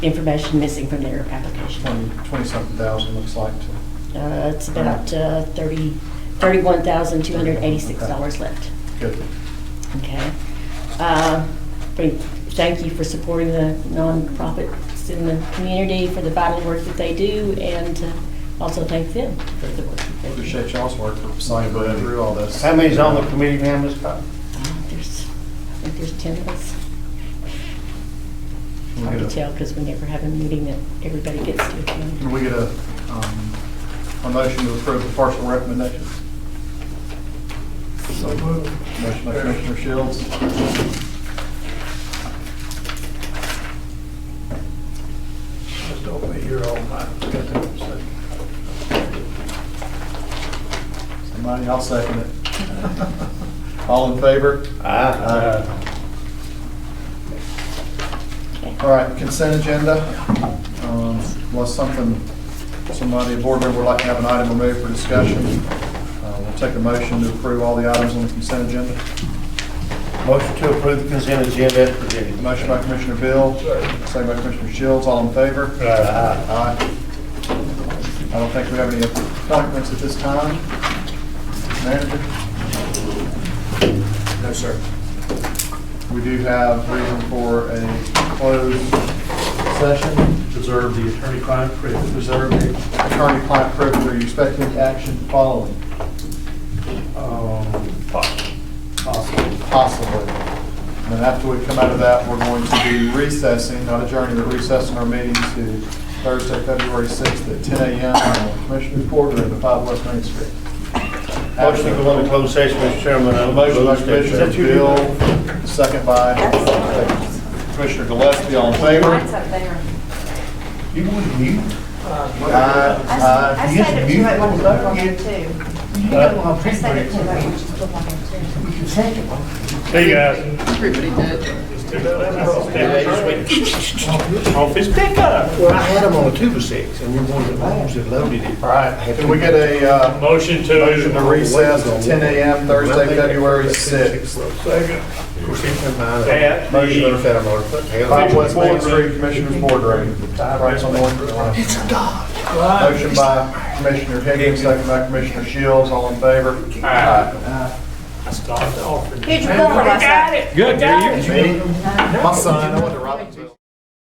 information missing from their application. Twenty, twenty-something thousand, looks like, to Uh, It's about uh, 30, $31,286 left. get Okay. Uh, we Thank you for supporting the nonprofits in the community for the vital work that they do, and uh, also thank them for the work that they do. Appreciate y'all's work for signing through all this. How many's on the committee now, Ms. Cox? Uh, There's, I think there's 10 of us. Can we Hard to get a- tell, because we never have a meeting that everybody gets to attend. Can we get a, um, a motion to approve the partial recommendation? So moved. Motion by Commissioner Shields. Just over here all night. Somebody, I'll second it. All in favor? Aye. Okay. All right, consent agenda. Um, Unless something, somebody, a board member would like to have an item removed for discussion, uh, we'll take a motion to approve all the items on the consent agenda. Motion to approve the consent agenda as presented. Motion by Commissioner Bill, second by Commissioner Shields, all in favor? Aye. Aye. I don't think we have any appointments at this time. Manager? No, sir. We do have reason for a closed session, preserve the attorney-client privilege. reserve the attorney-client privilege. Are you expecting any action following? Um, Possible. Possibly. And then after we come out of that, we're going to be recessing, not adjourning, but recessing our meeting to Thursday, February 6th at 10 a.m. on the Commissioner's Quarter in the 5 West Main Street. Motion to go into closed session, Mr. Chairman. A on motion by closed session. Commissioner Bill, second by Commissioner Gillespie, all in favor? up there. You would mute? Aye, aye. I said that Uh, you Uh, might want to look on there too. I said that you might want to look on there too. Hey, guys. Everybody did. Office pickup. Well, I had them on a two by six, and we wanted to, I just loaded it. All right, can we get a uh, Motion motion to to recess at 10 a.m. Thursday, February 6th? Of course, it's in my- At the- Motion to set a motor foot. Hell, 5 West Main Street, Commissioner's Boardroom. Right on the- Motion by Commissioner Higgins, second by Commissioner Shields, all in favor? Aye. Stop the offering. Here's your bill for last night. Good, do you? Me? My son, I went to Robinson.